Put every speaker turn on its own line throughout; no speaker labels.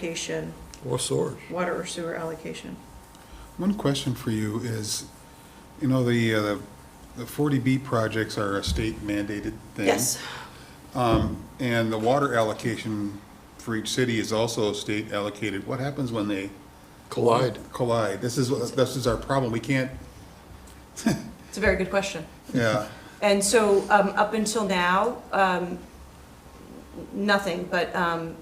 allocation,
Or sewers.
water or sewer allocation.
One question for you is, you know, the, uh, the 40B projects are a state mandated thing.
Yes,
Um, And the water allocation for each city is also state allocated. What happens when they
Collide.
collide? This is, what- this is our problem. We can't,
It's a very good question.
yeah,
And so, um, up until now, um, nothing, but, um,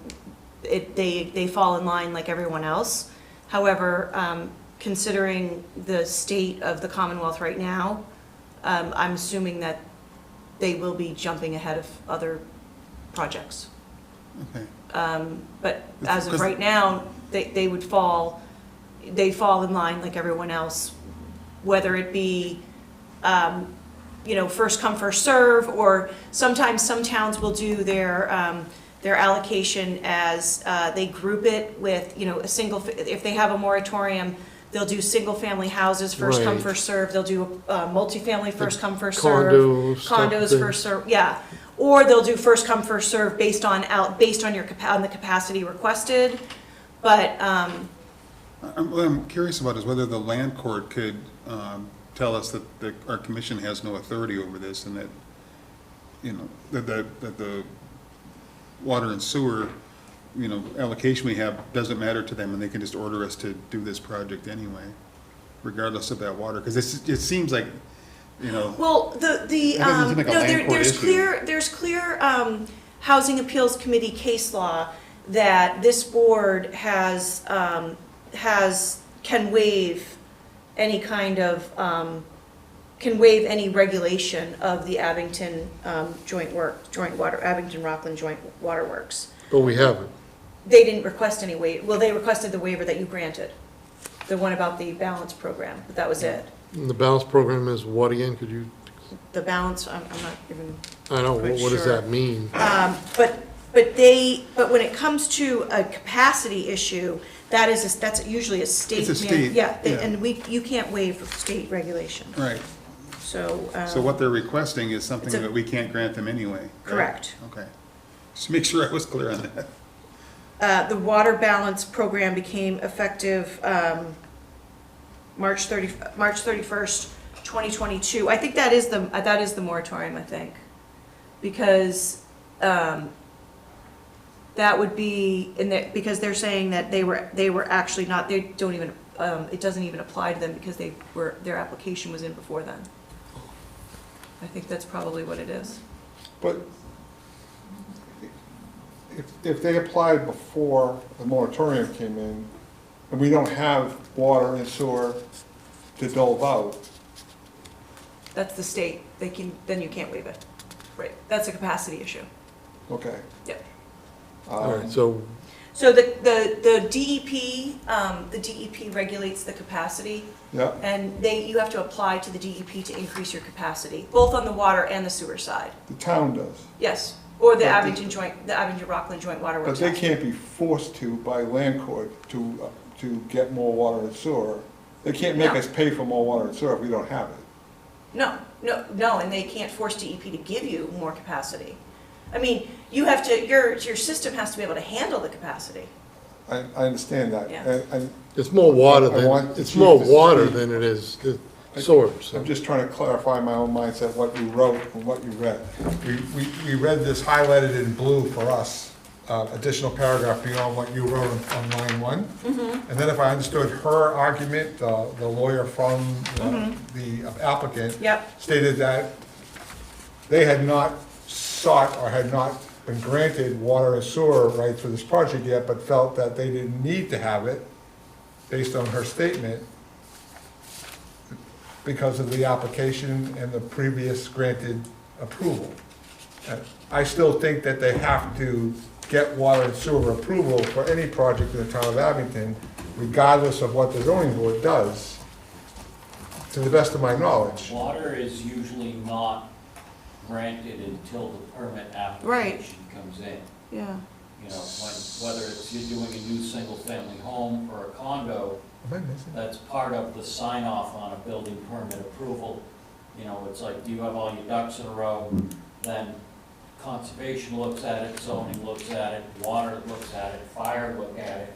it, they, they fall in line like everyone else. However, um, considering the state of the Commonwealth right now, um, I'm assuming that they will be jumping ahead of other projects.
okay.
But as of
Because-
right now, they, they would fall, they fall in line like everyone else, whether it be, um, you know, first come, first serve, or sometimes some towns will do their, um, their allocation as, uh, they group it with, you know, a single, if they have a moratorium, they'll do single-family houses, first come,
Right.
first serve, they'll do, uh, multifamily, first come, first serve.
Condo stuff
Condos
there.
first serve, yeah. Or they'll do first come, first serve based on out, based on your, capa- on the capacity requested. But, um,
I'm, what I'm curious about is whether the land court could um, tell us that the, our commission has no authority over this and that, you know, that, that, that the water and sewer, you know, allocation we have doesn't matter to them and they can just order us to do this project anyway, regardless of that water, because it's, it seems like, you know,
well, the, the,
That doesn't
um,
seem
no,
like a land
there,
court
there's
issue.
clear, there's clear, um, Housing Appeals Committee case law that this board has, um, has, can waive any kind of, um, can waive any regulation of the Abington, um, joint work, joint water, Abington Rockland Joint Waterworks.
But we haven't.
They didn't request any wa, well, they requested the waiver that you granted, the one about the balance program, but that was it.
And the balance program is what again? Could you,
The balance, I'm, I'm not even,
I know, what what does
Sure.
that mean?
um, but, but they, but when it comes to a capacity issue, that is, a- that's usually a state.
It's a
man-
state,
Yeah, they-
yeah.
and we, you can't waive state regulation,
right.
so. um,
So what they're requesting is something
It's a-
that we can't grant them anyway. right?
Correct.
Okay. Just make sure I was clear on that.
Uh, the water balance program became effective, um, March thirty, March thirty-first, twenty twenty-two. I think that is the, uh, that is the moratorium, I think. Because, um, that would be, in the, because they're saying that they were, they were actually not, they don't even, um, it doesn't even apply to them because they were, their application was in before then. I think that's probably what it is.
But if, if they applied before the moratorium came in, and we don't have water and sewer to dole out,
That's the state, they can, then you can't waive it. Right, that's a capacity issue.
okay.
Yep.
All right,
um,
so,
So the, the, the DEP, um, the DEP regulates the capacity,
Yeah,
and they, you have to apply to the DEP to increase your capacity, both on the water and the sewer side,
the town does,
yes. Or
But
the
they-
Abington joint, the Abington Rockland Joint Water
but
Works.
they can't be forced to by land court to, uh, to get more water and sewer. They can't make
No.
us pay for more water and sewer if we don't have it.
No, no, no, and they can't force DEP to give you more capacity. I mean, you have to, your, your system has to be able to handle the capacity.
I, I understand that,
Yeah.
and, and
it's more water
I want
than,
the
it's more
chief to
water
speak.
than it is the sewers.
I'm just trying to clarify my own mindset, what you wrote and what you read. We, we, we read this highlighted in blue for us, uh, additional paragraph beyond what you wrote on- on line one. And then if I understood her argument, uh, the lawyer from uh, the applicant.
Yep.
Stated that they had not sought or had not been granted water and sewer rights for this project yet, but felt that they didn't need to have it based on her statement because of the application and the previous granted approval. Uh, I still think that they have to get water and sewer approval for any project in the town of Abington, regardless of what the zoning board does, to the best of my knowledge.
Water is usually not granted until the permit
Right.
application comes in.
Yeah.
You know, when, whether it's you're doing a new single-family home or a condo,
Am I missing?
that's part of the sign-off on a building permit approval. You know, it's like, do you have all your ducks in a row? Then Conservation looks at it, zoning looks at it, water looks at it, fire look at it,